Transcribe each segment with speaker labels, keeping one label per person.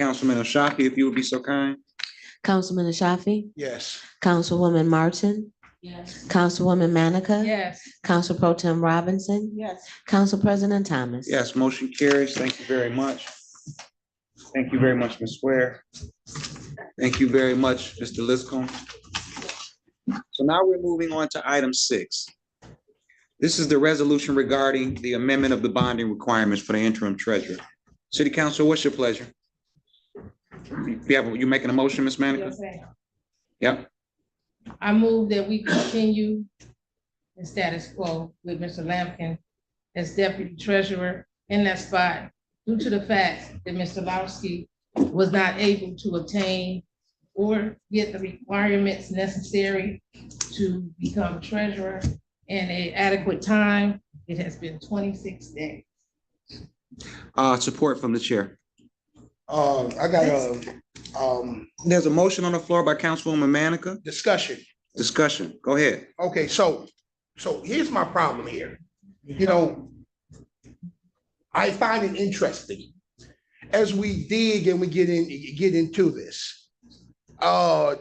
Speaker 1: Councilman Ashafi, if you would be so kind.
Speaker 2: Councilman Ashafi,
Speaker 3: Yes.
Speaker 2: Councilwoman Martin,
Speaker 4: Yes.
Speaker 2: Councilwoman Manica,
Speaker 4: Yes.
Speaker 2: Council Pro Tem Robinson,
Speaker 4: Yes.
Speaker 2: Council President Thomas.
Speaker 1: Yes, motion carries. Thank you very much. Thank you very much, Ms. Ware. Thank you very much, Mr. Liscombe. So now we're moving on to item six. This is the resolution regarding the amendment of the bonding requirements for the interim treasurer. City Council, what's your pleasure? You have, you making a motion, Ms. Manica?
Speaker 4: ma'am.
Speaker 1: Yep.
Speaker 4: I move that we continue the status quo with Mr. Lampkin as deputy treasurer in that spot due to the fact that Mr. Lowsky was not able to obtain or get the requirements necessary to become treasurer in an adequate time. It has been twenty-six days.
Speaker 1: Uh, support from the chair.
Speaker 3: Um, I got a, um,
Speaker 1: There's a motion on the floor by Councilwoman Manica.
Speaker 3: discussion.
Speaker 1: Discussion. Go ahead.
Speaker 3: Okay, so, so here's my problem here. You know, I find it interesting as we dig and we get in, get into this. Uh,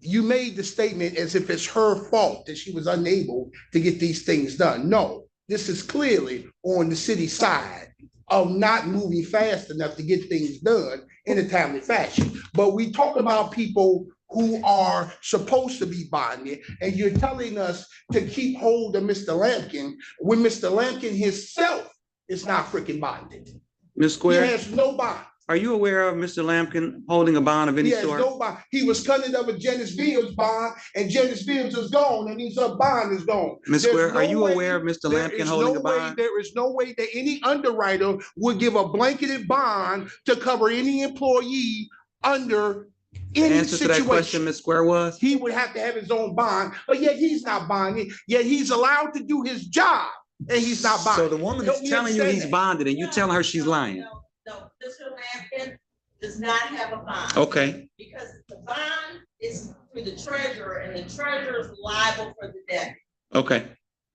Speaker 3: you made the statement as if it's her fault that she was unable to get these things done. No, this is clearly on the city side of not moving fast enough to get things done in a timely fashion. But we talk about people who are supposed to be bonded, and you're telling us to keep hold of Mr. Lampkin when Mr. Lampkin himself is not freaking bonded.
Speaker 1: Ms.
Speaker 3: He
Speaker 1: Square,
Speaker 3: has no bond.
Speaker 1: are you aware of Mr. Lampkin holding a bond of
Speaker 3: He
Speaker 1: any
Speaker 3: has
Speaker 1: sort?
Speaker 3: no bond. He was cutting up a Janice Fields bond, and Janice Fields is gone, and his uh, bond is gone.
Speaker 1: Ms.
Speaker 3: There's
Speaker 1: Square, are
Speaker 3: no
Speaker 1: you
Speaker 3: way-
Speaker 1: aware of Mr.
Speaker 3: There
Speaker 1: Lampkin
Speaker 3: is
Speaker 1: holding
Speaker 3: no
Speaker 1: a
Speaker 3: way,
Speaker 1: bond?
Speaker 3: there is no way that any underwriter would give a blanketed bond to cover any employee under
Speaker 1: The
Speaker 3: any
Speaker 1: answer to that question,
Speaker 3: situation.
Speaker 1: Ms. Square, was?
Speaker 3: He would have to have his own bond, but yet he's not bonding, yet he's allowed to do his job, and he's not
Speaker 1: So
Speaker 3: bonding.
Speaker 1: the woman
Speaker 3: Help
Speaker 1: is
Speaker 3: me
Speaker 1: telling you
Speaker 3: understand
Speaker 1: he's
Speaker 3: that.
Speaker 1: bonded and you telling her she's lying.
Speaker 5: No, no, Mr. Lampkin does not have a
Speaker 1: Oh,
Speaker 5: bond
Speaker 1: Okay,
Speaker 5: because the bond is for the treasurer and the treasurer is liable for the debt.
Speaker 1: okay.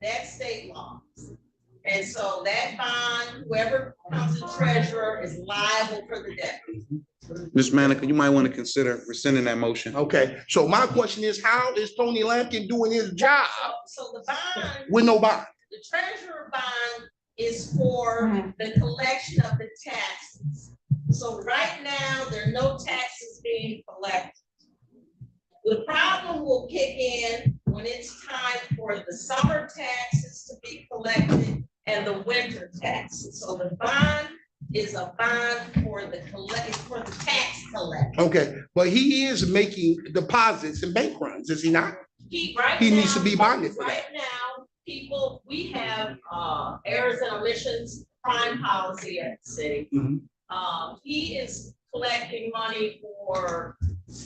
Speaker 5: That's state law. And so that bond, whoever becomes the treasurer is liable for the debt.
Speaker 1: Ms. Manica, you might want to consider rescinding that motion.
Speaker 3: Okay, so my question is, how is Tony Lampkin doing his job
Speaker 5: So- So the bond,
Speaker 3: with no bond?
Speaker 5: the treasurer bond is for the collection of the taxes. So right now, there are no taxes being collected. The problem will kick in when it's time for the summer taxes to be collected and the winter taxes. So the bond is a bond for the collect, for the tax collector.
Speaker 3: Okay, but he is making deposits and bank runs, is he not?
Speaker 5: He, right
Speaker 3: He needs to
Speaker 5: now-
Speaker 3: be bonded for that.
Speaker 5: Right now, people, we have, uh, errors and omissions crime policy at the city.
Speaker 3: Mhm.
Speaker 5: Um, he is collecting money for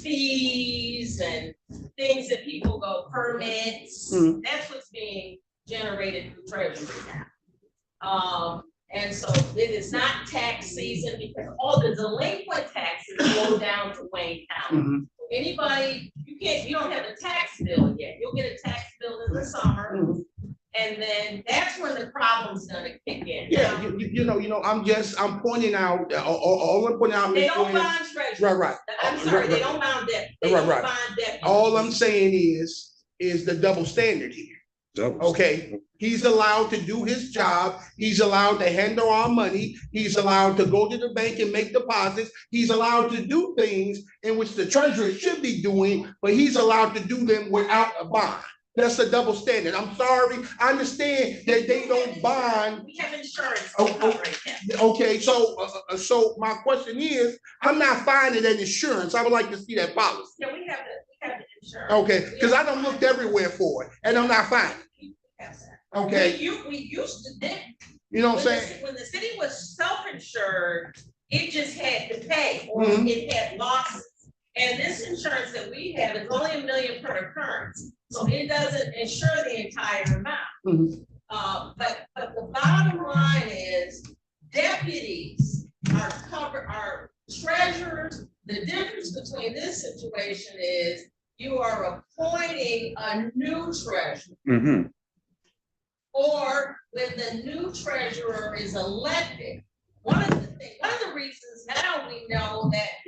Speaker 5: fees and things that people go permits.
Speaker 3: Mhm.
Speaker 5: That's what's being generated through treasury now. Um, and so it is not tax season because all the delinquent taxes go down to Wayne County
Speaker 3: Mhm.
Speaker 5: anybody, you can't, you don't have a tax bill yet, you'll get a tax bill in the summer,
Speaker 3: Mm-hmm.
Speaker 5: and then that's when the problem's gonna kick in.
Speaker 3: Yeah, you, you- you know, you know, I'm just, I'm pointing out, uh, all, all- all I'm pointing out.
Speaker 5: They
Speaker 3: Ms.
Speaker 5: don't
Speaker 3: Williams-
Speaker 5: bond treasurers.
Speaker 3: Right, right.
Speaker 5: I'm sorry, they don't bond debt, they
Speaker 3: Right,
Speaker 5: don't
Speaker 3: right. Oh,
Speaker 5: bond debt.
Speaker 3: All I'm saying is, is the double standard here, okay? He's allowed to do his job, he's allowed to handle our money, he's allowed to go to the bank and make deposits, he's allowed to do things in which the treasurer should be doing, but he's allowed to do them without a bond. That's a double standard. I'm sorry, I understand that they don't bond
Speaker 5: We have insurance
Speaker 3: Oh,
Speaker 5: to
Speaker 3: oh.
Speaker 5: cover it now.
Speaker 3: Okay, so, uh, uh, so my question is, I'm not finding an insurance, I would like to see that policy.
Speaker 5: Yeah, we have the, we have the insurance.
Speaker 3: Okay, because I done looked everywhere for it, and I'm not finding,
Speaker 5: We have that.
Speaker 3: it. okay,
Speaker 5: We, u- we used to, then,
Speaker 3: you know
Speaker 5: when
Speaker 3: what I'm
Speaker 5: the,
Speaker 3: saying?
Speaker 5: when the city was self-insured, it just had to pay, or
Speaker 3: Mhm.
Speaker 5: it had losses. And this insurance that we have is only a million per occurrence, so it doesn't insure the entire amount.
Speaker 3: Mhm.
Speaker 5: Uh, but, but the bottom line is deputies are cover, are treasurers. The difference between this situation is you are appointing a new treasurer.
Speaker 1: Mm-hmm.
Speaker 5: Or when the new treasurer is elected, one of the thing. One of the reasons now we know that